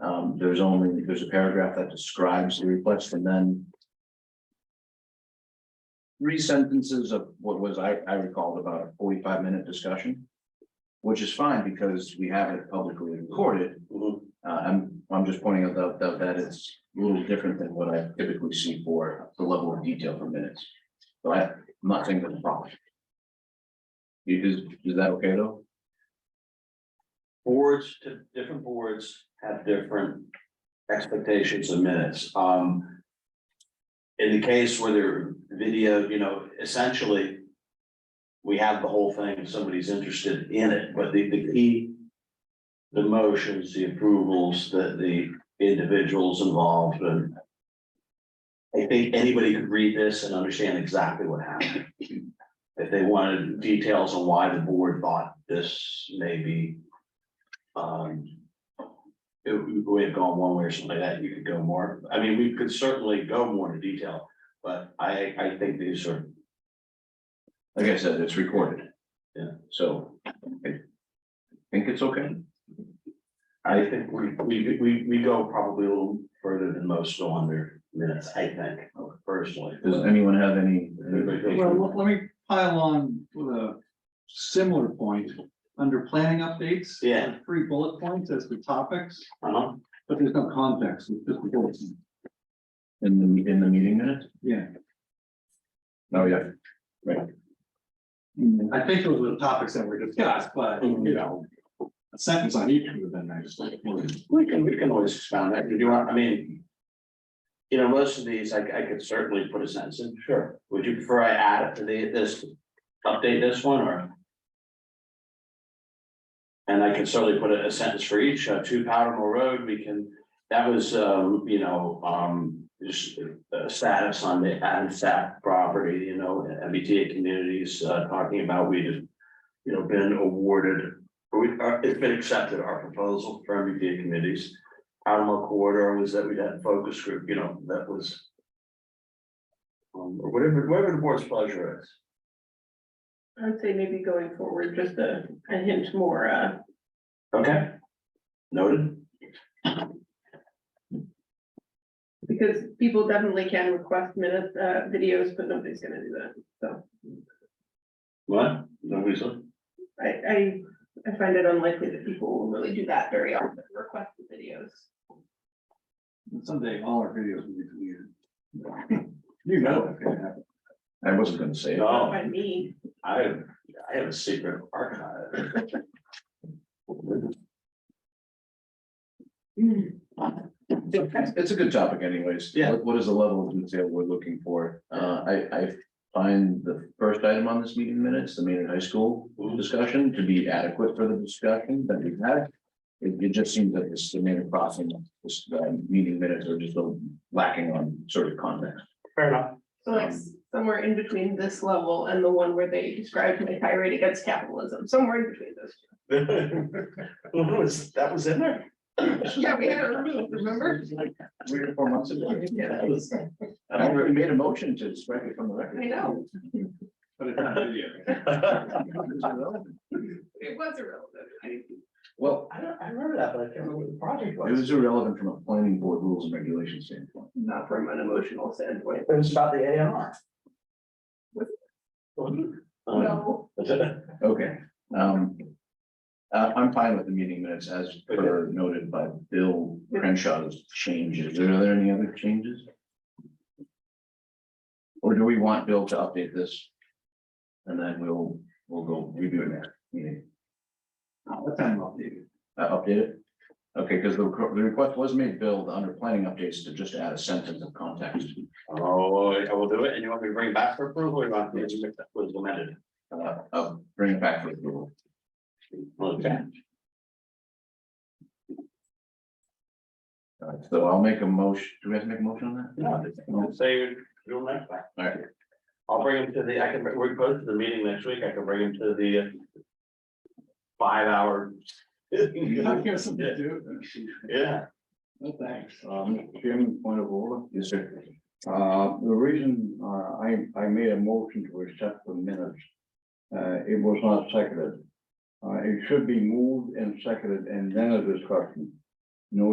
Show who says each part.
Speaker 1: Um, there's only, there's a paragraph that describes the request and then. Three sentences of what was, I, I recalled about a forty-five minute discussion. Which is fine because we have it publicly recorded. Uh, I'm, I'm just pointing out that- that, that it's a little different than what I typically see for the level of detail for minutes. So I, am not saying that's a problem. You- Is, is that okay though?
Speaker 2: boards, to different boards have different expectations of minutes, um. In the case where they're video, you know, essentially. We have the whole thing, if somebody's interested in it, but the, the key. The motions, the approvals, that the individuals involved and. I think anybody could read this and understand exactly what happened. If they wanted details on why the board thought this may be um. It, we have gone one way or something like that, you could go more, I mean, we could certainly go more into detail, but I, I think these are,
Speaker 1: Like I said, it's recorded.
Speaker 2: Yeah.
Speaker 1: So I think it's okay.
Speaker 2: I think we, we, we, we go probably a little further than most on their minutes, I think, personally.
Speaker 1: Does anyone have any?
Speaker 3: Well, let- let me pile on with a similar point, under planning updates.
Speaker 2: Yeah.
Speaker 3: there's Three bullet points as the topics,
Speaker 2: Uh-huh,
Speaker 3: but there's no context, it's just the bullets,
Speaker 1: In the, in the meeting minutes?
Speaker 3: yeah.
Speaker 1: Oh, yeah.
Speaker 3: I think those were the topics that were discussed, but,
Speaker 2: Mm-hmm.
Speaker 3: you know, a sentence on each of them, I just like. well,
Speaker 2: we can, we can always expound that, if you want, I mean. You know, most of these, I, I could certainly put a sentence in, sure, would you prefer I add it to the, this, update this one, or? And I can certainly put a a sentence for each, uh, to Powder Mill Road, we can, that was, um, you know, um, just uh, status on the ANSAC property, you know, MBTA communities, uh, talking about we have, you know, been awarded we, uh, it's been accepted, our proposal for MBTA committees. Animal corridor was that we had focus group, you know, that was. Um, or whatever, whatever the board's pleasure is.
Speaker 4: I'd say maybe going forward, just a, a hint more, uh,
Speaker 2: Okay. Noted.
Speaker 4: because people definitely can request minutes, uh, videos, but nobody's gonna do that.
Speaker 2: What? No reason.
Speaker 4: I, I, I find it unlikely that people will really do that very often, request the videos.
Speaker 3: Someday all our videos will be deleted. You know that's gonna happen.
Speaker 1: I wasn't gonna say it.
Speaker 2: No.
Speaker 4: Not by me,
Speaker 2: I, I have a secret archive.
Speaker 4: Oh.
Speaker 1: It's it's a good topic anyways.
Speaker 2: Yeah.
Speaker 1: What- What is the level of detail we're looking for? Uh, I, I find the first item on this meeting minutes, the Maynard High School discussion to be adequate for the discussion that we've had. It, it just seems that this, the Maynard Crossing, this, uh, meeting minutes are just a little lacking on sort of context.
Speaker 2: Fair enough.
Speaker 4: so like s- somewhere in between this level and the one where they described my tirade against capitalism, somewhere in between those. two.
Speaker 2: That was, that was in there?
Speaker 4: Yeah, we had it removed, remember?
Speaker 1: Three or four months ago.
Speaker 4: Yeah, that was-
Speaker 1: I already made a motion to strike it from the record.
Speaker 4: I know,
Speaker 3: But it's not video.
Speaker 4: it was irrelevant, I,
Speaker 1: Well,
Speaker 2: I don't, I remember that, but I can't remember what the
Speaker 1: it
Speaker 2: project
Speaker 1: was irrelevant from a planning board rules and regulations standpoint.
Speaker 4: not from an emotional standpoint,
Speaker 2: It was about the A and R. Oh,
Speaker 4: Was
Speaker 2: No. Um,
Speaker 4: no.
Speaker 1: Okay, um. Uh, I'm fine with the meeting minutes as per noted by Bill Crenshaw's changes. Are there any other changes? Or do we want Bill to update this? And then we'll, we'll go review it next meeting.
Speaker 3: That time I'll do.
Speaker 1: Uh, update it? Okay, because the, requ- the request was made, Bill, under planning updates to just add a sentence of context.
Speaker 2: Oh, I will do it, and you want me to bring it back for approval, or you want me to make that was amended?
Speaker 1: Uh, uh, bring it back for approval.
Speaker 2: Okay,
Speaker 1: All right, So I'll make a motion. Do we have to make a motion on that?
Speaker 2: no, I'll say you're doing that back.
Speaker 1: All right,
Speaker 2: I'll bring him to the, I can, we're close to the meeting next week, I can bring him to the. uh, Five hour.
Speaker 3: I
Speaker 2: Yeah,
Speaker 3: got something to do. No, thanks.
Speaker 5: Um, Chairman, point of order.
Speaker 1: yes, sir.
Speaker 5: Uh, the reason, uh, I, I made a motion to accept the minutes. Uh, it was not seconded. Uh, it should be moved and seconded and then a discussion. No